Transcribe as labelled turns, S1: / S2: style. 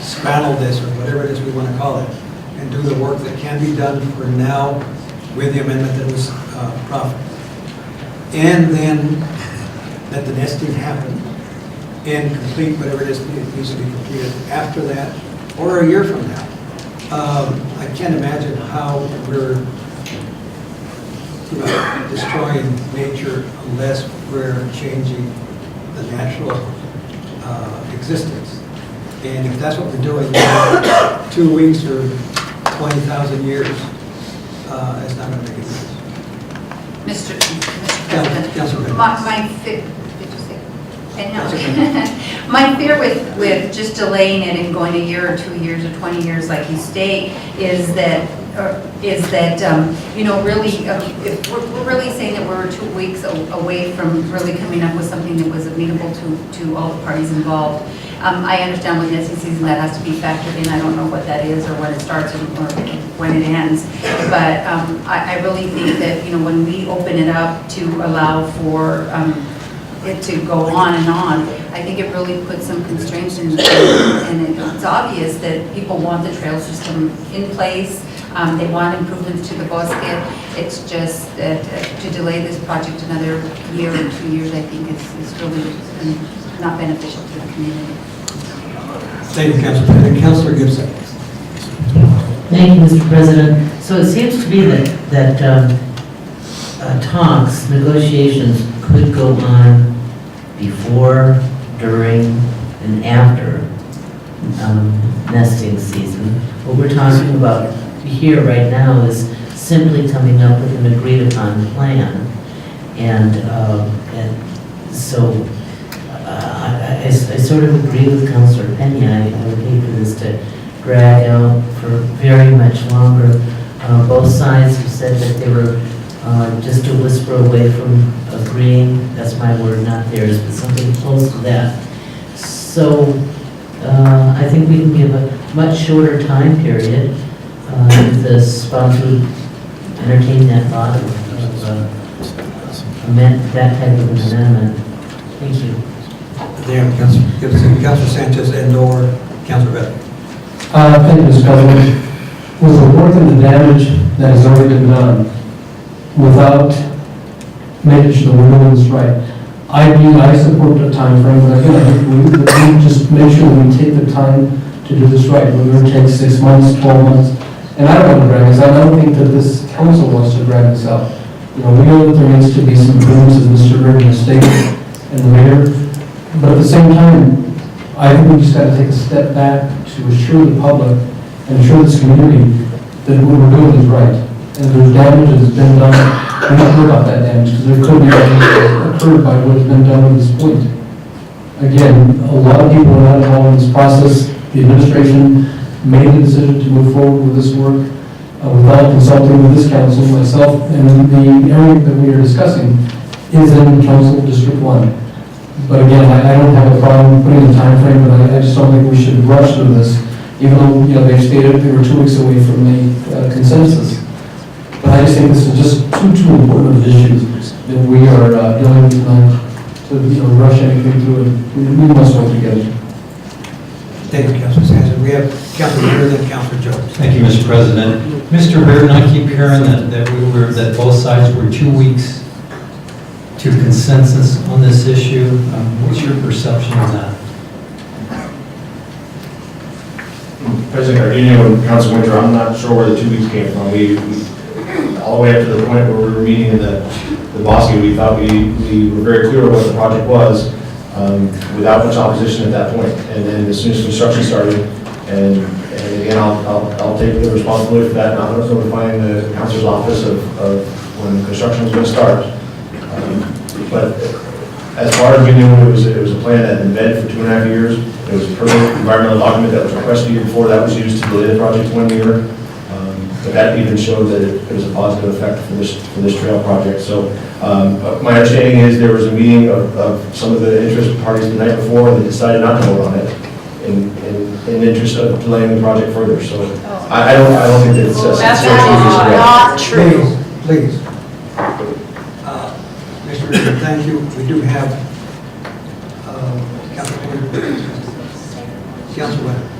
S1: straddle this, or whatever it is we want to call it, and do the work that can be done for now with the amendment that was uh, proffered. And then let the nesting happen and complete whatever it is that needs to be completed after that, or a year from now. Um, I can't imagine how we're about destroying nature unless we're changing the natural uh, existence. And if that's what we're doing, then two weeks or 20,000 years, uh, it's not going to make a difference.
S2: Mr.
S1: Yeah,
S2: Mr.
S1: Councilwoman.
S2: President, my, my, fe- did you say? Eh, I know.
S1: That's okay.
S2: My fear with, with just delaying it and going a year or two years or 20 years like you state is that, or is that, um, you know, really, um, if, we're we're really saying that we're two weeks a- away from really coming up with something that was amenable to, to all the parties involved. Um, I understand with nesting season, that has to be factored in. I don't know what that is or when it starts and- or when it ends. But um, I, I really think that, you know, when we open it up to allow for um, it to go on and on, I think it really puts some constraints in, and it's obvious that people want the trail system in place, um, they want improvements to the bosque, it's just that uh, to delay this project another year or two years, I think is, is really um, not beneficial to the community.
S1: Thank you, Councilor. And Councilor Gibson.
S3: Thank you, Mr. President. So it seems to be that, that um, uh, talks, negotiations could go on before, during, and after um, nesting season. What we're talking about here right now is simply coming up with an agreed-upon plan. And, um, and so uh, I, I- I sort of agree with Counselor Penny. I I would hate for this to drag out for very much longer. Uh, Both sides have said that they were uh, just a whisper away from agreeing, that's my word, not theirs, but something close to that. So uh, I think we can give a much shorter time period. Uh, if The sponsor would entertain that thought of of, uh, amend, that type of an amendment. Thank you.
S1: There, Councilor Gibson, Councilor Sanchez, and/or Councilor Bedford.
S4: Uh, Thank you, Mr. President. With the work and the damage that has already been done, without managing the women's right, I do, I support the timeframe, but I feel like we, we need to just make sure we take the time to do this right, whether it takes six months, 12 months. And I don't want to drag this out, I don't think that this council wants to drag this out. You know, we know that there needs to be some rooms, as Mr. Burton has stated, and the mayor, but at the same time, I think we just got to take a step back to assure the public and assure this community that what we're doing is right. And there's damage that's been done, we don't care about that damage because there could be damage occurred by what's been done at this point. Again, a lot of people are not involved in this process. The administration made the decision to move forward with this work uh, without consulting with this council, myself, and the area that we are discussing is in Council District One. But again, I, I don't have a problem putting the time frame, but I, I just don't think we should rush through this, even though, you know, they stated they were two weeks away from the uh, consensus. But I just think this is just too, too important of issues that we are uh, dealing with tonight, to, you know, rush anything through it. We we must work together.
S1: Thank you, Councilor Sanchez. We have Councilor Burr, then Councilor Jones.
S5: Thank you, Mr. President. Mr. Burton, I keep hearing that, that we were, that both sides were two weeks to consensus on this issue. Um, What's your perception of that?
S6: President Cardenio and Council Winter, I'm not sure where the two weeks came from. We, we- all the way up to the point where we were meeting in the, the Bosque, we thought we, we were very clear what the project was, um, without much opposition at that point. And then as soon as construction started, and, and again, I'll, I'll, I'll take the responsibility for that, and I'll notify the council's office of, of when construction was gonna start. Um, But as far as we knew, it was, it was a plan that had been vetted for two and a half years. It was a permanent environmental document that was requested a year before, that was used to delay the project one year. Um, But that even showed that it it was a positive effect for this, for this trail project. So um, but my understanding is there was a meeting of, of some of the interested parties the night before, and they decided not to vote on it in, in- in interest of delaying the project further. So I, I don't, I don't think that it's.
S7: That's
S6: not
S7: not true.
S1: Please, please. Uh, Mr. Richard, thank you. We do have uh, Councilor Councilor Webb.